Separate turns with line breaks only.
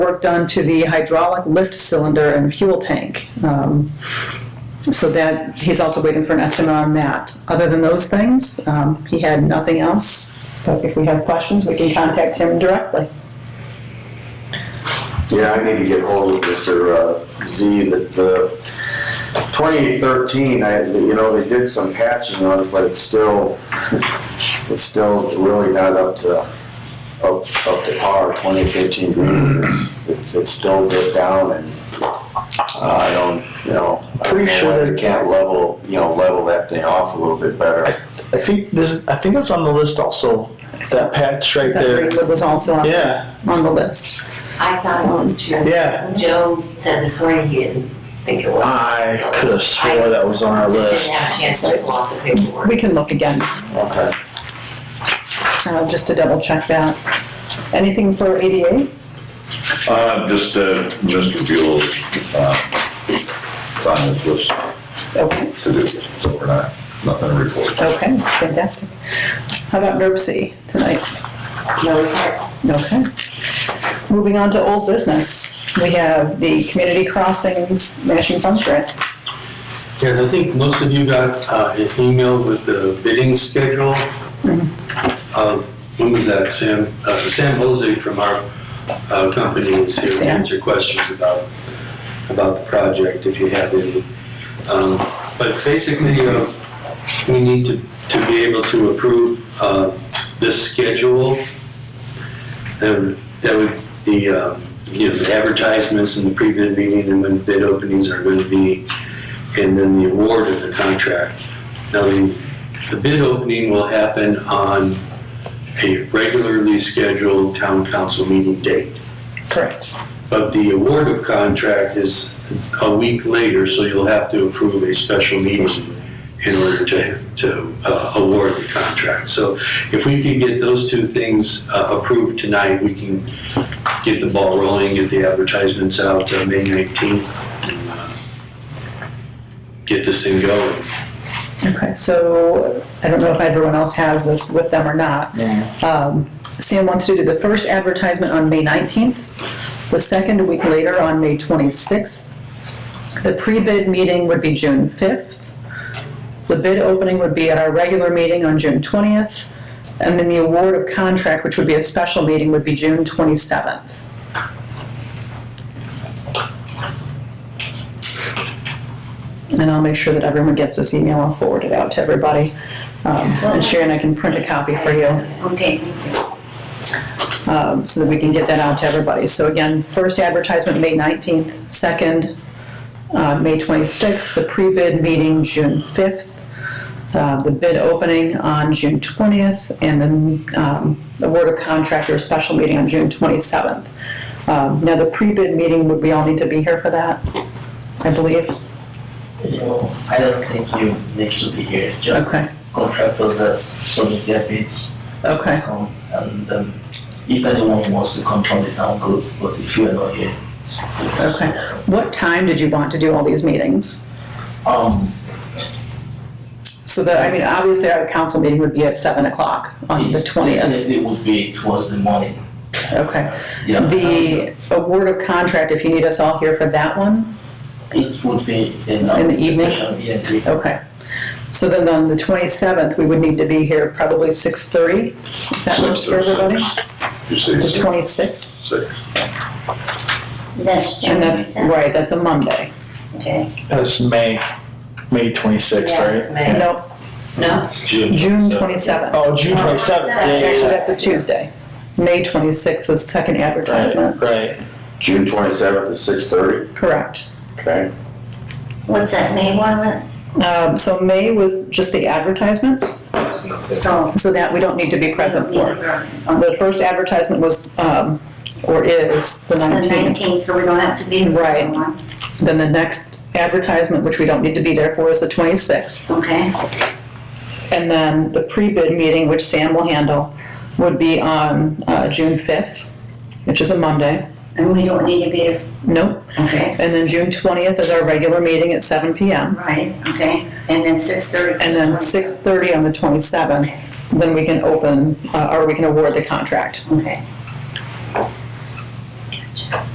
work done to the hydraulic lift cylinder and fuel tank. Um, So that, he's also waiting for an estimate on that. Other than those things, um, he had nothing else. But if we have questions, we can contact him directly.
Yeah, I need to get hold of Mr. uh, Z, that the 2013, I, you know, they did some patching on it, but it's still, it's still really not up to, up, up to par, 2013 green, it's, it's, it's still bit down and uh, I don't, you know, I don't
Pretty
know
sure
why
that-
they can't level, you know, level that thing off a little bit better.
I think this. I think that's on the list also. That patch right
That
there.
Greenwood was also on
Yeah,
on the list.
I thought it was true.
yeah.
Joe said this morning he didn't think it was.
I
so
could have swore that was on our
Just
list.
didn't have a chance to pull out the paperwork.
We can look again,
Okay.
uh, just to double check that. Anything for ADA?
Uh, just, uh, Mr. Buell, uh, on his list
Okay,
to do, so we're not, nothing to report.
okay, fantastic. How about NERC C tonight?
No report.
Okay. Moving on to old business, we have the community crossings matching funds grant.
And I think most of you got uh, an email with the bidding schedule. Um, Who was that, Sam? uh, Sam Hosey from our uh, company is here to
Sam.
answer questions about, about the project, if you have any. Um, But basically, uh, we need to, to be able to approve uh, this schedule. And That would be, uh, you know, the advertisements and the pre-bid meeting and when bid openings are going to be and then the award of the contract. Now, the the bid opening will happen on a regularly scheduled town council meeting date.
Correct.
But the award of contract is a week later, so you'll have to approve a special meeting in order to, to uh, award the contract. So if we could get those two things uh, approved tonight, we can get the ball rolling, get the advertisements out uh, May 19th, and uh, get this thing going.
Okay, so I don't know if everyone else has this with them or not. Um, Sam wants to do the first advertisement on May 19th, the second a week later on May 26th. The pre-bid meeting would be June 5th. The bid opening would be at our regular meeting on June 20th. And then the award of contract, which would be a special meeting, would be June 27th. And I'll make sure that everyone gets this email. I'll forward it out to everybody. Um, And Sharon, I can print a copy for you.
Okay, thank you.
um, so that we can get that out to everybody. So again, first advertisement, May 19th, second, uh, May 26th, the pre-bid meeting, June 5th, uh, the bid opening on June 20th, and then um, award of contract or special meeting on June 27th. Um, Now, the pre-bid meeting, would we all need to be here for that, I believe?
No, I don't think you need to be here. Just
Okay,
contractors that submit their bids
okay,
come, and um, if anyone wants to come from the town, good. But if you are not here, it's it's-
okay. What time did you want to do all these meetings?
Um,
So that, I mean, obviously, our council meeting would be at 7 o'clock on the
it
20th.
definitely would be towards the morning.
Okay.
Yeah.
The award of contract, if you need us all here for that one,
It would be in, um,
In the evening?
special- Yeah, the-
okay. So then on the 27th, we would need to be here probably 6:30, if that works for everybody?
You
The
say six,
26th,
six.
That's June
and that's,
7th,
right, that's a Monday.
okay.
That's May, May twenty sixth,
Yeah,
right?
it's May.
Nope,
No?
June 27th.
Oh, June twenty seventh. Yeah, yeah,
Actually,
yeah.
that's a Tuesday. May 26th is second
Right,
advertisement,
right.
June 27th at 6:30,
correct.
okay?
What's that May one?
Um, So May was just the advertisements,
So.
so that we don't need to be present for. The first advertisement was, um, or is, the
The
19th.
nineteenth, so we don't have to be. in the
Right.
one,
Then the next advertisement, which we don't need to be there for, is the 26th.
Okay,
And then the pre-bid meeting, which Sam will handle, would be on uh, June 5th, which is a Monday.
and we don't need to be,
Nope.
okay,
And then June 20th is our regular meeting at 7 PM.
right, okay, and then six thirty.
And then 6:30 on the 27th, then we can open, uh, or we can award the contract.
Okay.